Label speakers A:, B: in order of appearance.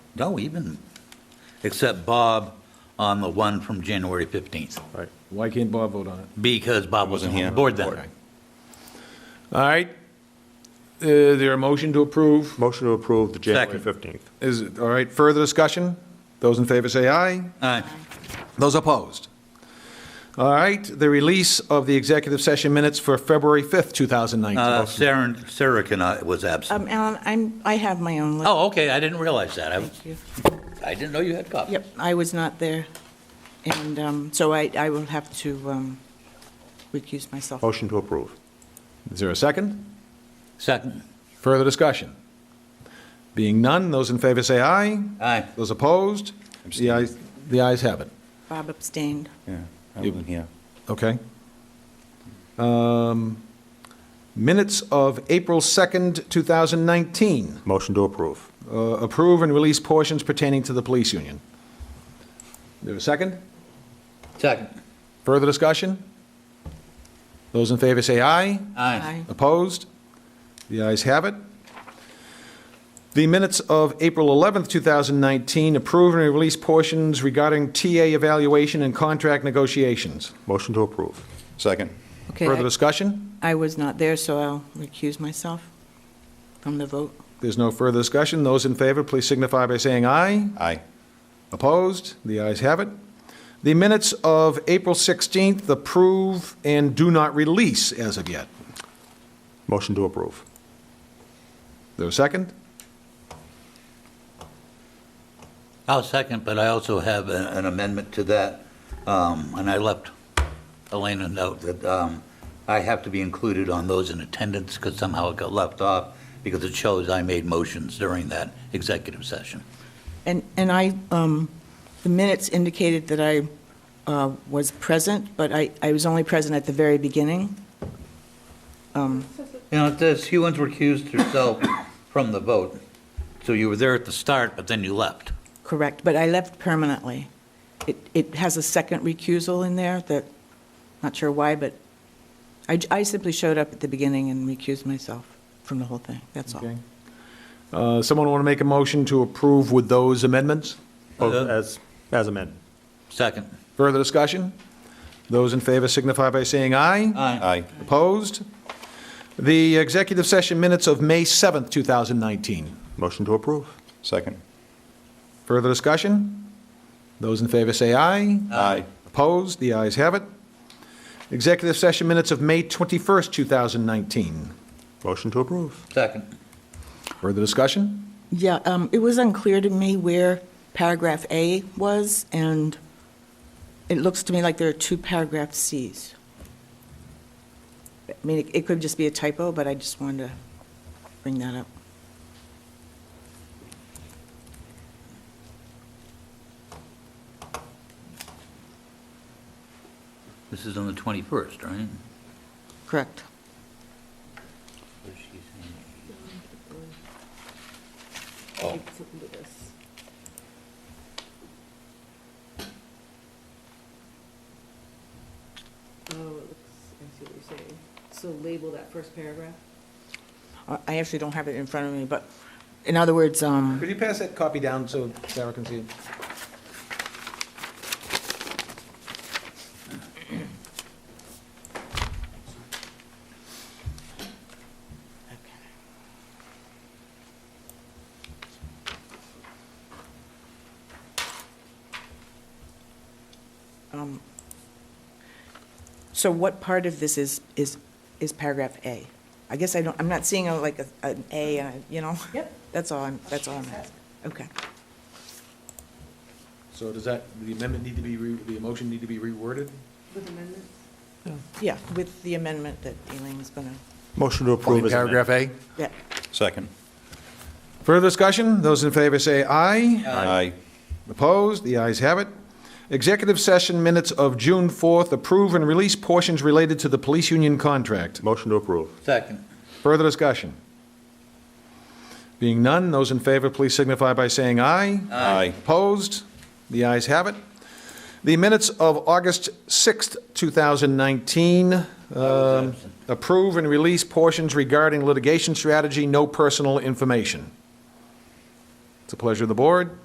A: No, even, except Bob on the one from January 15th,
B: Right. Why can't Bob vote on it?
A: because Bob wasn't on the board then.
B: All right. Uh, Is there a motion to approve?
C: Motion to approve the January
A: Second.
C: 15th.
B: Is, it all right, further discussion? Those in favor say aye.
A: Uh,
B: Those opposed? All right, the release of the executive session minutes for February 5th, 2019.
A: uh, Sarah, Sarah cannot, was absent.
D: Um, Alan, I'm, I have my own list.
A: Oh, okay, I didn't realize that. I,
D: Thank you.
A: I didn't know you had copies.
D: Yep, I was not there, and um, so I, I will have to um, recuse myself.
C: Motion to approve.
B: Is there a second?
A: Second.
B: Further discussion? Being none, those in favor say aye.
A: Aye.
B: Those opposed? The ayes, the ayes have it.
D: Bob abstained.
B: Okay. Um, Minutes of April 2nd, 2019.
C: Motion to approve.
B: Uh, Approve and release portions pertaining to the police union. There a second?
A: Second.
B: Further discussion? Those in favor say aye.
A: Aye.
D: Aye.
B: Opposed? The ayes have it. The minutes of April 11th, 2019, approve and release portions regarding TA evaluation and contract negotiations.
C: Motion to approve.
E: Second.
D: Okay,
B: Further
D: I-
B: discussion?
D: I was not there, so I'll recuse myself from the vote.
B: There's no further discussion. Those in favor, please signify by saying aye.
E: Aye.
B: Opposed? The ayes have it. The minutes of April 16th, approve and do not release as of yet.
C: Motion to approve.
B: There a second?
A: I'll second, but I also have a- an amendment to that, um, and I left Elena a note that um, I have to be included on those in attendance, because somehow it got left off, because it shows I made motions during that executive session.
D: And, and I, um, the minutes indicated that I uh, was present, but I, I was only present at the very beginning.
A: You know, it says Hewens recused herself from the vote, so you were there at the start, but then you left.
D: Correct, but I left permanently. It, it has a second recusal in there that, not sure why, but I, j- I simply showed up at the beginning and recused myself from the whole thing, that's all.
B: Okay. Uh, Someone want to make a motion to approve with those amendments?
C: Both
A: Uh,
C: as, as amended.
A: Second.
B: Further discussion? Those in favor signify by saying aye.
E: Aye.
B: Opposed? The executive session minutes of May 7th, 2019.
C: Motion to approve.
E: Second.
B: Further discussion? Those in favor say aye.
E: Aye.
B: Opposed? The ayes have it. Executive session minutes of May 21st, 2019.
C: Motion to approve.
A: Second.
B: Further discussion?
D: Yeah, um, it was unclear to me where paragraph A was, and it looks to me like there are two paragraph Cs. I mean, it- it could just be a typo, but I just wanted to bring that up.
A: This is on the 21st, right?
D: Correct.
A: Oh.
F: Oh, it looks, I see what you're saying. So label that first paragraph?
D: I I actually don't have it in front of me, but in other words, um,
B: Could you pass that copy down so Sarah can see it?
D: Um, So what part of this is, is, is paragraph A? I guess I don't, I'm not seeing a- like a- an A, and a- you know?
F: Yep.
D: That's all I'm, that's all I'm asking. Okay.
B: So does that, the amendment need to be, re- the motion need to be reworded?
F: With amendments?
D: Yeah, with the amendment that Elaine's gonna,
C: Motion to approve as amended.
B: Paragraph A.
D: yeah.
E: Second.
B: Further discussion? Those in favor say aye.
E: Aye.
B: Opposed? The ayes have it. Executive session minutes of June 4th, approve and release portions related to the police union contract.
C: Motion to approve.
A: Second.
B: Further discussion? Being none, those in favor, please signify by saying aye.
E: Aye.
B: Opposed? The ayes have it. The minutes of August 6th, 2019, um, approve and release portions regarding litigation strategy, no personal information. It's a pleasure of the board.